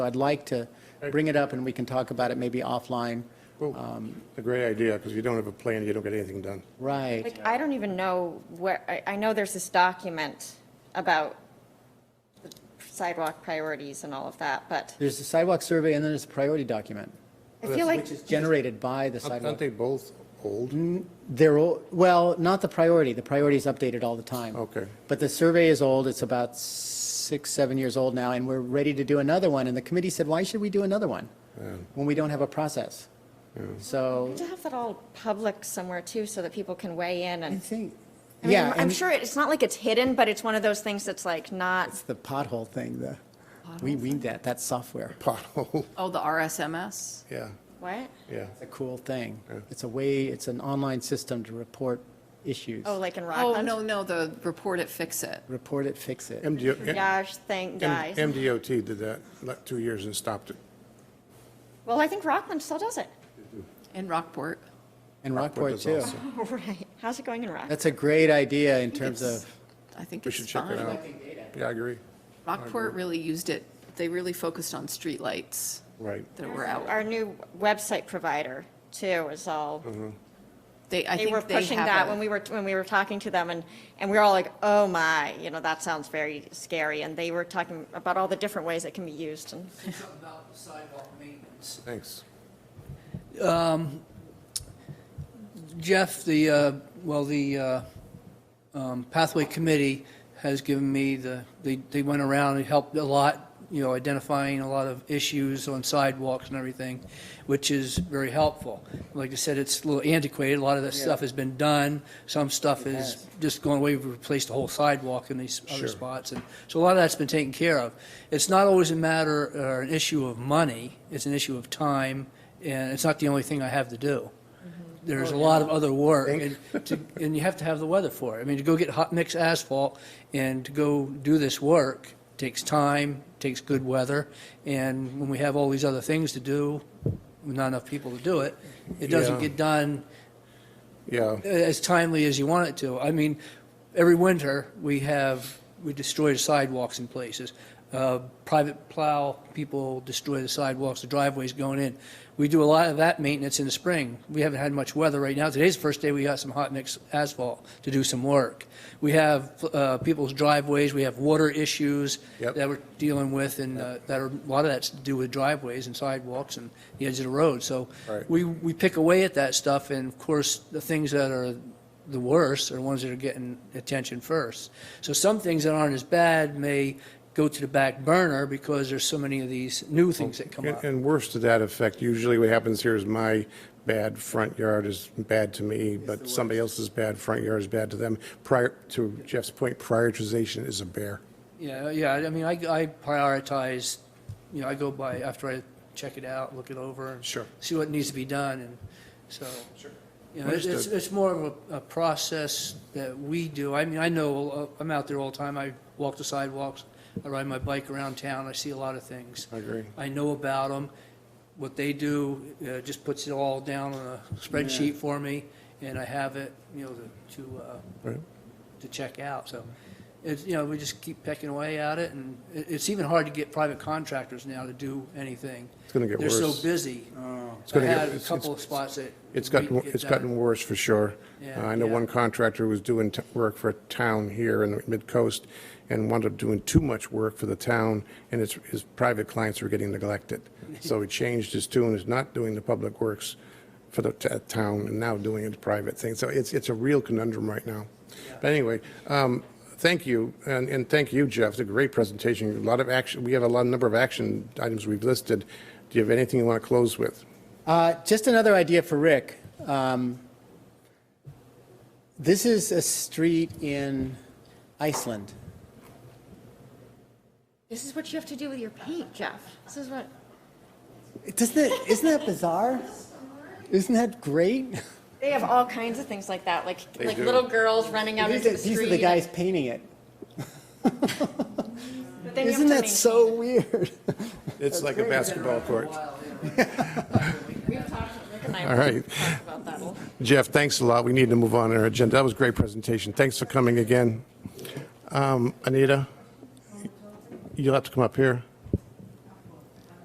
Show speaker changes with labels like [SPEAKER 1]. [SPEAKER 1] I'd like to bring it up and we can talk about it maybe offline.
[SPEAKER 2] A great idea, because if you don't have a plan, you don't get anything done.
[SPEAKER 1] Right.
[SPEAKER 3] Like, I don't even know where, I, I know there's this document about sidewalk priorities and all of that, but
[SPEAKER 1] There's a sidewalk survey and then there's a priority document,
[SPEAKER 3] I feel like,
[SPEAKER 1] which is generated by the
[SPEAKER 2] Aren't aren't
[SPEAKER 1] sidewalk.
[SPEAKER 2] they both old?
[SPEAKER 1] They're, all- well, not the priority. The priority is updated all the time.
[SPEAKER 2] Okay.
[SPEAKER 1] But the survey is old. It's about six, seven years old now, and we're ready to do another one. And the committee said, why should we do another one? When we don't have a process? So,
[SPEAKER 3] we should have that all public somewhere too, so that people can weigh in
[SPEAKER 1] I
[SPEAKER 3] and,
[SPEAKER 1] think,
[SPEAKER 3] I mean,
[SPEAKER 1] yeah.
[SPEAKER 3] I'm- I'm
[SPEAKER 1] and-
[SPEAKER 3] sure it's not like it's hidden, but it's one of those things that's like not,
[SPEAKER 1] It's the pothole thing, the, we, we, that, that's software.
[SPEAKER 2] Pothole,
[SPEAKER 4] Oh, the RSMS?
[SPEAKER 2] yeah,
[SPEAKER 3] what?
[SPEAKER 2] yeah.
[SPEAKER 1] It's a cool thing. It's a way, it's an online system to report issues.
[SPEAKER 3] Oh, like in
[SPEAKER 4] Oh,
[SPEAKER 3] Rockland?
[SPEAKER 4] no, no, the report it, fix it.
[SPEAKER 1] Report it, fix it.
[SPEAKER 2] MDO
[SPEAKER 3] Gosh, thank
[SPEAKER 2] M-
[SPEAKER 3] guys.
[SPEAKER 2] MDOT did that, like, two years and stopped it.
[SPEAKER 3] Well, I think Rockland still does it.
[SPEAKER 4] In Rockport,
[SPEAKER 1] And Rockport
[SPEAKER 2] does
[SPEAKER 1] too.
[SPEAKER 2] also.
[SPEAKER 3] Right. How's it going in Rockland?
[SPEAKER 1] That's a great idea in terms
[SPEAKER 4] it's-
[SPEAKER 1] of,
[SPEAKER 4] I think
[SPEAKER 2] We
[SPEAKER 4] it's
[SPEAKER 2] should check it
[SPEAKER 4] fine.
[SPEAKER 2] out. Yeah, I agree.
[SPEAKER 4] Rockport really used it, they really focused on streetlights
[SPEAKER 2] Right.
[SPEAKER 4] that were out.
[SPEAKER 3] Our new website provider too is all,
[SPEAKER 1] Oh,
[SPEAKER 4] They, I
[SPEAKER 3] they were
[SPEAKER 4] think they
[SPEAKER 3] pushing that when
[SPEAKER 4] have a,
[SPEAKER 3] we were, when we were talking to them and, and we were all like, oh my, you know, that sounds very scary. And they were talking about all the different ways it can be used and
[SPEAKER 5] something about sidewalk maintenance.
[SPEAKER 2] Thanks.
[SPEAKER 5] Jeff, the, uh, well, the uh, um, Pathway Committee has given me the, they, they went around and helped a lot, you know, identifying a lot of issues on sidewalks and everything, which is very helpful. Like I said, it's a little antiquated, a lot of that stuff has been done, some stuff is just going away, we've replaced the whole sidewalk in these other spots, and so a lot of that's been taken care of. It's not always a matter or an issue of money, it's an issue of time, and it's not the only thing I have to do there's a lot of other work, and, to, and you have to have the weather for it. I mean, to go get hot mix asphalt and to go do this work takes time, takes good weather, and when we have all these other things to do, with not enough people to do it, it
[SPEAKER 2] Yeah.
[SPEAKER 5] doesn't get done
[SPEAKER 2] Yeah,
[SPEAKER 5] as timely as you want it to. I mean, every winter, we have, we destroy the sidewalks in places. Uh, Private plow, people destroy the sidewalks, the driveways going in. We do a lot of that maintenance in the spring. We haven't had much weather right now. Today's the first day we got some hot mix asphalt to do some work. We have uh, people's driveways, we have water issues
[SPEAKER 2] Yep.
[SPEAKER 5] that we're dealing with, and uh, that are, a lot of that's to do with driveways and sidewalks and the edge of the road. So
[SPEAKER 2] Right.
[SPEAKER 5] we, we pick away at that stuff, and of course, the things that are the worst are the ones that are getting attention first. So some things that aren't as bad may go to the back burner because there's so many of these new things that come
[SPEAKER 2] Oh, and
[SPEAKER 5] up.
[SPEAKER 2] and worse to that effect, usually what happens here is my bad front yard is bad to me, but somebody else's bad front yard is bad to them. Prior, to Jeff's point, prioritization is a bear.
[SPEAKER 5] Yeah, yeah, I mean, I, I prioritize, you know, I go by, after I check it out, look it over. and
[SPEAKER 2] Sure.
[SPEAKER 5] See what needs to be done, and so. You know, it's, it's
[SPEAKER 2] Understood.
[SPEAKER 5] it's more of a, a process that we do. I mean, I know, uh, I'm out there all the time. I walk the sidewalks. I ride my bike around town. I see a lot of things.
[SPEAKER 2] I agree.
[SPEAKER 5] I know about them. What they do, uh, just puts it all down on a spreadsheet for me, and I have it, you know, to, to, uh,
[SPEAKER 2] Right.
[SPEAKER 5] to check out. So it's, you know, we just keep pecking away at it, and it, it's even hard to get private contractors now to do anything.
[SPEAKER 2] It's gonna get
[SPEAKER 5] They're
[SPEAKER 2] worse.
[SPEAKER 5] so busy. I
[SPEAKER 2] gonna get-
[SPEAKER 5] had a
[SPEAKER 2] it's-
[SPEAKER 5] couple
[SPEAKER 2] it's-
[SPEAKER 5] of spots that.
[SPEAKER 2] It's
[SPEAKER 5] we
[SPEAKER 2] gotten,
[SPEAKER 5] could get
[SPEAKER 2] it's
[SPEAKER 5] done.
[SPEAKER 2] gotten worse for sure. Uh,
[SPEAKER 5] Yeah,
[SPEAKER 2] I know
[SPEAKER 5] yeah.
[SPEAKER 2] one contractor was doing t- work for a town here in the mid-coast and wound up doing too much work for the town, and his, his private clients were getting neglected. So he changed his tune, is not doing the public works for the t- town and now doing it private thing. So it's, it's a real conundrum right now. But anyway, um, thank you, and, and thank you, Jeff, it's a great presentation, a lot of action, we have a lot, number of action items we've listed. Do you have anything you want to close with?
[SPEAKER 1] Uh, Just another idea for Rick. Um, This is a street in Iceland.
[SPEAKER 3] this is what you have to do with your paint, Jeff. This is what,
[SPEAKER 1] Doesn't that, isn't that bizarre? Isn't that great?
[SPEAKER 3] they have all kinds of things like that, like, like
[SPEAKER 2] do.
[SPEAKER 3] little girls running out
[SPEAKER 1] These
[SPEAKER 3] into
[SPEAKER 1] are
[SPEAKER 3] the
[SPEAKER 1] these are
[SPEAKER 3] street.
[SPEAKER 1] the guys painting it.
[SPEAKER 3] But then you have
[SPEAKER 1] Isn't that
[SPEAKER 3] to maintain
[SPEAKER 1] so
[SPEAKER 3] it.
[SPEAKER 1] weird?
[SPEAKER 2] It's like a basketball court.
[SPEAKER 3] We've talked, Rick and I
[SPEAKER 2] All right.
[SPEAKER 3] talked about that. We'll-
[SPEAKER 2] Jeff, thanks a lot. We need to move on our agenda. That was a great presentation. Thanks for coming again. Um, Anita, you'll have to come up here.